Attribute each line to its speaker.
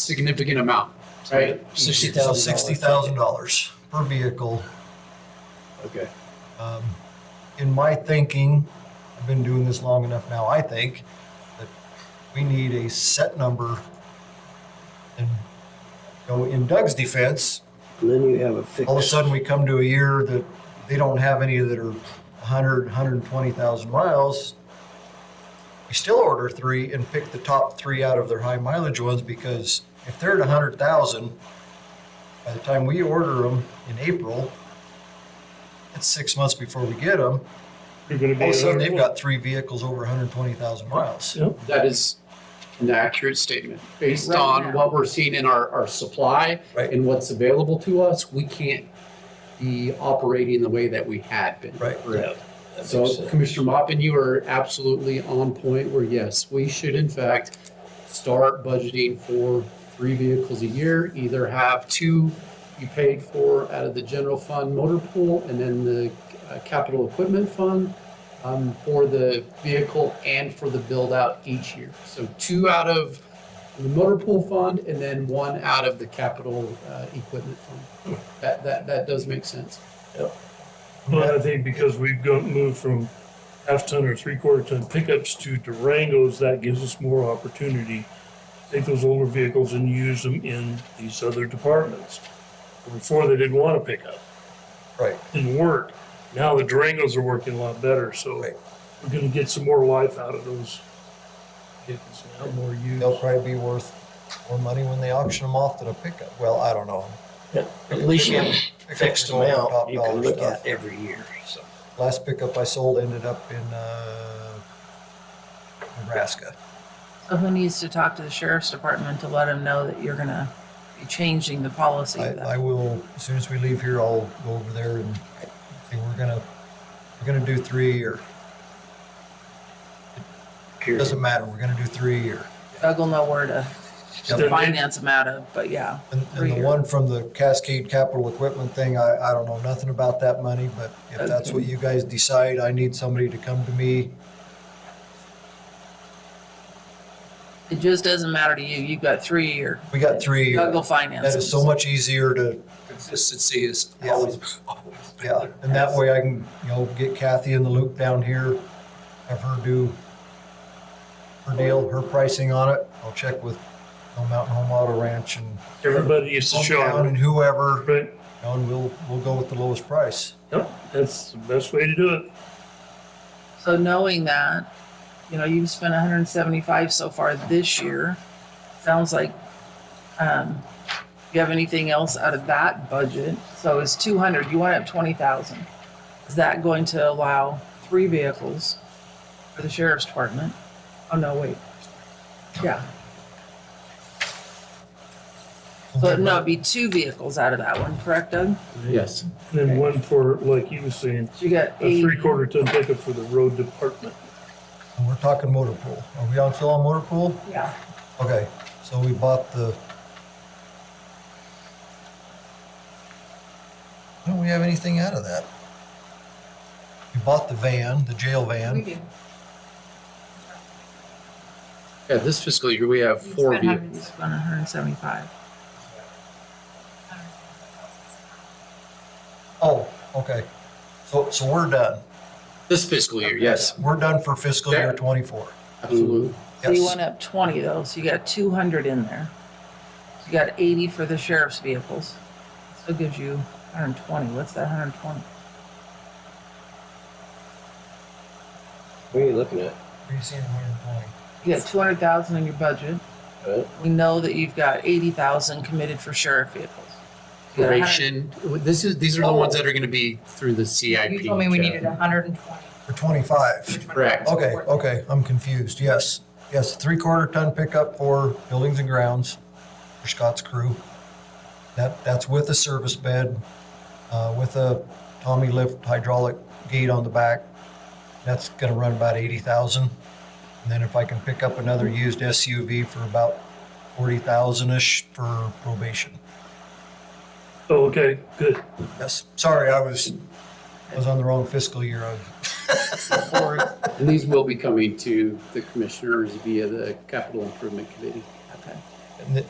Speaker 1: significant amount, right?
Speaker 2: Sixty thousand.
Speaker 3: Sixty thousand dollars per vehicle.
Speaker 2: Okay.
Speaker 3: Um, In my thinking, I've been doing this long enough now, I think, that we need a set number. And, you know, in Doug's defense,
Speaker 2: And then you have a fixed.
Speaker 3: all of a sudden we come to a year that they don't have any that are 100, 120,000 miles. We still order three and pick the top three out of their high mileage ones because if they're at 100,000, by the time we order them in April, it's six months before we get them.
Speaker 4: You're gonna be.
Speaker 3: All of a sudden,
Speaker 4: another
Speaker 3: they've
Speaker 4: one.
Speaker 3: got three vehicles over 120,000 miles.
Speaker 4: Yep.
Speaker 1: That is an accurate statement. Based
Speaker 5: Right
Speaker 1: on
Speaker 5: now.
Speaker 1: what we're seeing in our, our supply
Speaker 3: Right.
Speaker 1: and what's available to us, we can't be operating the way that we had been.
Speaker 3: Right.
Speaker 1: Correct.
Speaker 2: That makes
Speaker 1: So
Speaker 2: sense.
Speaker 1: Commissioner Mopin, you are absolutely on point where yes, we should in fact start budgeting for three vehicles a year, either have two you paid for out of the general fund motor pool and then the uh, capital equipment fund um, for the vehicle and for the build out each year. So two out of the motor pool fund and then one out of the capital uh, equipment fund. That, that, that does make sense.
Speaker 4: But I think because we've got moved from half ton or three quarter ton pickups to Durangos, that gives us more opportunity. to Take those older vehicles and use them in these other departments. Before they didn't want to pick up,
Speaker 3: Right.
Speaker 4: didn't work. Now the Durangos are working a lot better, so
Speaker 3: Right.
Speaker 4: we're gonna get some more life out of those vehicles now, more use.
Speaker 3: They'll probably be worth more money when they auction them off than a pickup. Well, I don't know.
Speaker 2: At least you have a
Speaker 3: Pickups
Speaker 2: fixed
Speaker 3: are going for top
Speaker 2: amount you can
Speaker 3: dollar
Speaker 2: look
Speaker 3: stuff.
Speaker 2: at every year, so.
Speaker 3: Last pickup I sold ended up in uh, Nebraska.
Speaker 5: So who needs to talk to the sheriff's department to let them know that you're gonna be changing the policy?
Speaker 3: I,
Speaker 5: then?
Speaker 3: I will as soon as we leave here. I'll go over there and say we're gonna we're gonna do three a year. It doesn't matter. We're gonna do three a year.
Speaker 5: Doug will know where to
Speaker 4: They're-
Speaker 5: finance them out of, but yeah.
Speaker 3: And,
Speaker 5: Three
Speaker 3: and the
Speaker 5: year.
Speaker 3: one from the Cascade Capital Equipment thing, I, I don't know nothing about that money, but if that's what you guys decide, I need somebody to come to me.
Speaker 5: It just doesn't matter to you. You've got three year.
Speaker 3: We got three a
Speaker 5: Doug will
Speaker 3: year.
Speaker 5: finance
Speaker 3: That
Speaker 5: them.
Speaker 3: is so much easier to
Speaker 2: Consistency is
Speaker 3: Yeah.
Speaker 2: always, always.
Speaker 3: Yeah, and that way I can, you know, get Kathy in the loop down here, have her do her deal, her pricing on it. I'll check with you know, Mountain Home Auto Ranch and
Speaker 4: Everybody used to show
Speaker 3: hometown and
Speaker 4: them,
Speaker 3: whoever,
Speaker 4: right?
Speaker 3: you know, and we'll, we'll go with the lowest price.
Speaker 4: Yep, that's the best way to do it.
Speaker 5: So knowing that, you know, you've spent 175 so far this year. Sounds like um, you have anything else out of that budget. So it's 200. You want up 20,000. Is that going to allow three vehicles for the sheriff's department? Oh no, wait. Yeah. So it- no, it'd be two vehicles out of that one, correct, Doug?
Speaker 1: Yes.
Speaker 4: And then one for, like you were saying,
Speaker 5: So you got
Speaker 4: a
Speaker 5: eight.
Speaker 4: Uh, three quarter ton pickup for the road department.
Speaker 3: And we're talking motor pool. Are we on still on motor pool?
Speaker 5: Yeah.
Speaker 3: Okay, so we bought the. Why don't we have anything out of that? We bought the van, the jail van.
Speaker 1: Yeah, this fiscal year, we have four
Speaker 6: It's been
Speaker 1: vehicles.
Speaker 6: having-
Speaker 5: You spent 175.
Speaker 3: Oh, okay. So, so we're done.
Speaker 1: This fiscal year, yes,
Speaker 3: We're done for fiscal year
Speaker 1: There.
Speaker 3: twenty-four.
Speaker 1: absolutely.
Speaker 5: So you
Speaker 3: Yes.
Speaker 5: went up twenty though, so you got two hundred in there. You got eighty for the sheriff's vehicles. Still gives you hundred and twenty. What's that hundred and twenty?
Speaker 2: What are you looking at?
Speaker 3: What are you seeing, 120?
Speaker 5: You got two hundred thousand in your budget.
Speaker 2: Right.
Speaker 5: We know that you've got eighty thousand committed for sheriff vehicles. You got a hundred-
Speaker 1: Duration, this is, these are the ones that are gonna be through the CIP.
Speaker 6: You told me we
Speaker 1: Jeff.
Speaker 6: needed hundred and twenty.
Speaker 3: For twenty-five.
Speaker 1: Correct.
Speaker 3: Okay, okay, I'm confused. Yes, yes, three-quarter ton pickup for buildings and grounds for Scott's crew. That, that's with a service bed, uh, with a Tommy lift hydraulic gate on the back. That's gonna run about eighty thousand. And then if I can pick up another used SUV for about forty thousand-ish for probation.
Speaker 4: Oh, okay, good.
Speaker 3: Yes, sorry, I was, I was on the wrong fiscal year. I-
Speaker 1: And these will be coming to the commissioners via the capital improvement committee.
Speaker 5: Okay.
Speaker 3: and th-